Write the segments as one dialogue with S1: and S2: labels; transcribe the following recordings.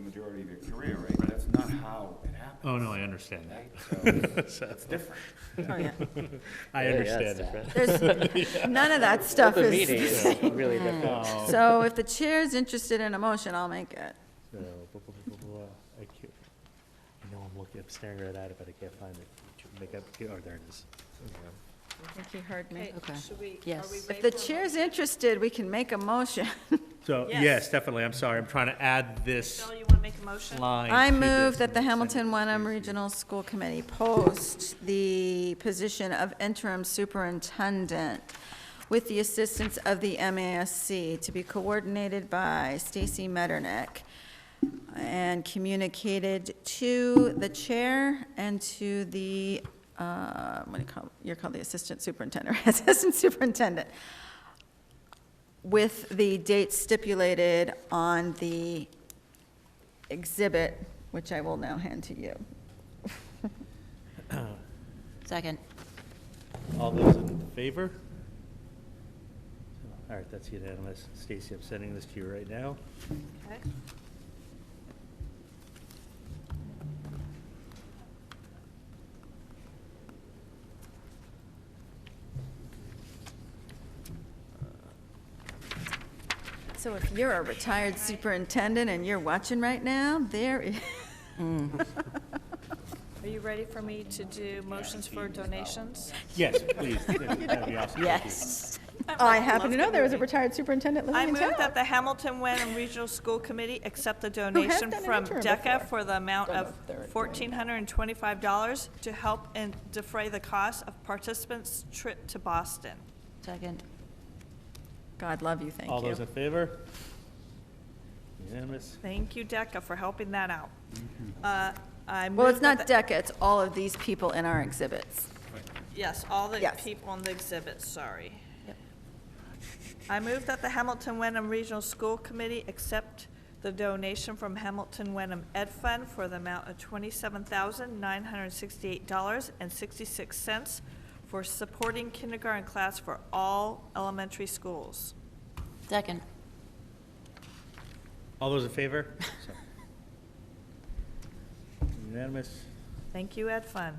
S1: majority of your career, right? That's not how it happens.
S2: Oh, no, I understand that.
S1: Right? So, It's different.
S3: Oh, yeah.
S2: I
S4: Yeah,
S2: understand
S4: yes.
S2: that.
S3: There's, none of that stuff
S4: The
S3: is
S4: meeting
S3: the
S4: is
S3: same.
S4: really different.
S3: So if the chair's interested in a motion, I'll make it.
S4: So, blah, blah, blah, blah, blah. I can't, I know I'm looking, I'm staring right at it, but I can't find it. Make up, oh, there it is.
S3: I think he heard me.
S5: Okay, should we, are
S6: Yes.
S5: we
S6: If
S5: ready
S3: If the
S5: for a
S3: chair's interested, we can make a motion.
S2: So,
S5: Yes.
S2: yes, definitely, I'm sorry, I'm trying to add
S5: mo-
S2: this
S5: Bill, you want to make a motion?
S2: line.
S3: I
S2: to
S3: move
S2: this.
S3: that the Hamilton Wenham Regional School Committee post the position of interim superintendent with the assistance of the MASC to be coordinated by Stacy Metternich and communicated to the chair and to the, uh, what do you call, you're called the assistant superintendent, right? assistant superintendent, with the date stipulated on the exhibit, which I will now hand to you.
S6: Second.
S4: All those in favor? All right, that's unanimous. Stacy, I'm sending this to you right now.
S5: Okay.
S3: So if you're a retired superintendent and you're watching right now, there is.
S5: Are you ready for me to do motions for donations?
S2: Yes, please, that'd be awesome. Thank you.
S6: Yes.
S3: I happen to know there was a retired superintendent
S5: I
S3: living in
S5: move that
S3: town.
S5: the Hamilton Wenham Regional School Committee accept the donation
S3: done an
S5: from
S3: interim
S5: DECA
S3: before.
S5: for the amount
S3: Done
S5: of
S3: a third
S5: fourteen hundred and twenty-five dollars to help and defray the cost of participants' trip to Boston.
S6: Second.
S3: God love you, thank
S4: All those in
S3: you.
S4: favor? Unanimous.
S5: Thank you, DECA, for helping that out. Uh, I
S3: Well,
S5: move
S3: it's
S5: that
S3: not
S5: the-
S3: DECA, it's all of these people in our exhibits.
S5: Yes, all the
S3: Yes.
S5: people on the exhibit, sorry.
S6: Yep.
S5: I move that the Hamilton Wenham Regional School Committee accept the donation from Hamilton Wenham Ed Fund for the amount of twenty-seven thousand, nine hundred and sixty-eight dollars and sixty-six cents for supporting kindergarten class for all elementary schools.
S6: Second.
S4: All those in favor? Sorry. Unanimous.
S5: Thank you, Ed Fund.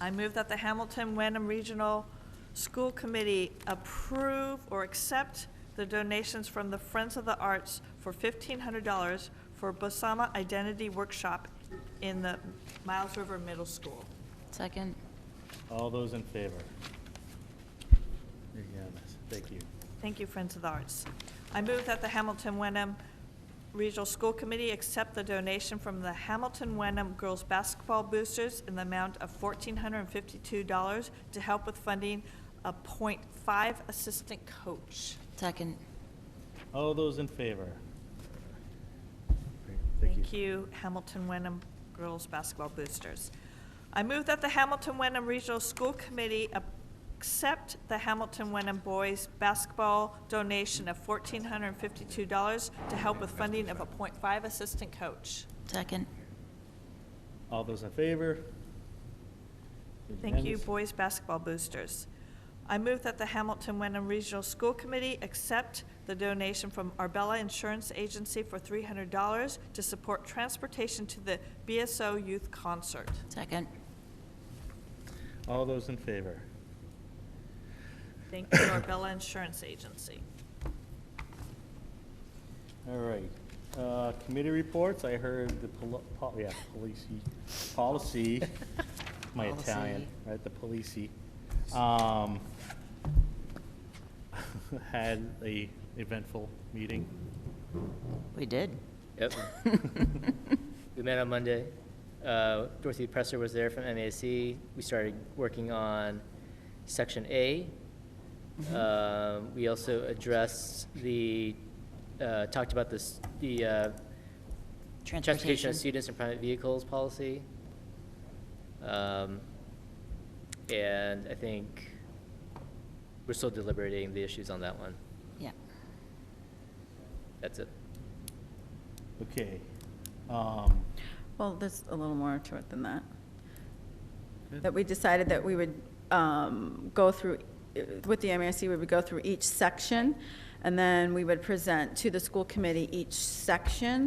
S5: I move that the Hamilton Wenham Regional School Committee approve or accept the donations from the Friends of the Arts for fifteen hundred dollars for Bosama Identity Workshop in the Miles River Middle School.
S6: Second.
S4: All those in favor? Unanimous. Thank you.
S5: Thank you, Friends of the Arts. I move that the Hamilton Wenham Regional School Committee accept the donation from the Hamilton Wenham Girls Basketball Boosters in the amount of fourteen hundred and fifty-two dollars to help with funding a point five assistant coach.
S6: Second.
S4: All those in favor? Great,
S5: Thank you, Hamilton Wenham Girls Basketball Boosters. I move that the Hamilton Wenham Regional School Committee ap- accept the Hamilton Wenham Boys Basketball donation of fourteen hundred and fifty-two dollars to help with funding of a point five assistant coach.
S6: Second.
S4: All those in favor?
S5: Thank you,
S4: Unanimous.
S5: Boys Basketball Boosters. I move that the Hamilton Wenham Regional School Committee accept the donation from Arbella Insurance Agency for three hundred dollars to support transportation to the BSO Youth Concert.
S6: Second.
S4: All those in favor?
S5: Thank you, Arbella Insurance Agency.
S4: All right. Uh, Committee reports, I heard the, pol- pol- yeah, police, policy, my Italian,
S6: Policy.
S4: right, the policy. um, Had a eventful meeting.
S6: We did.
S7: Yep. we met on Monday. Uh, Dorothy Presser was there from MASC. We started working on Section A. Um, we also addressed the, uh, talked about this, the uh, transportation
S6: Transportation.
S7: of students in private vehicles policy. Um, and I think we're still deliberating the issues on that one.
S6: Yeah.
S7: That's it.
S4: Okay. Um,
S3: Well, there's a little more to it than that. That we decided that we would um, go through, with the MASC, we would go through each section, and then we would present to the school committee each section,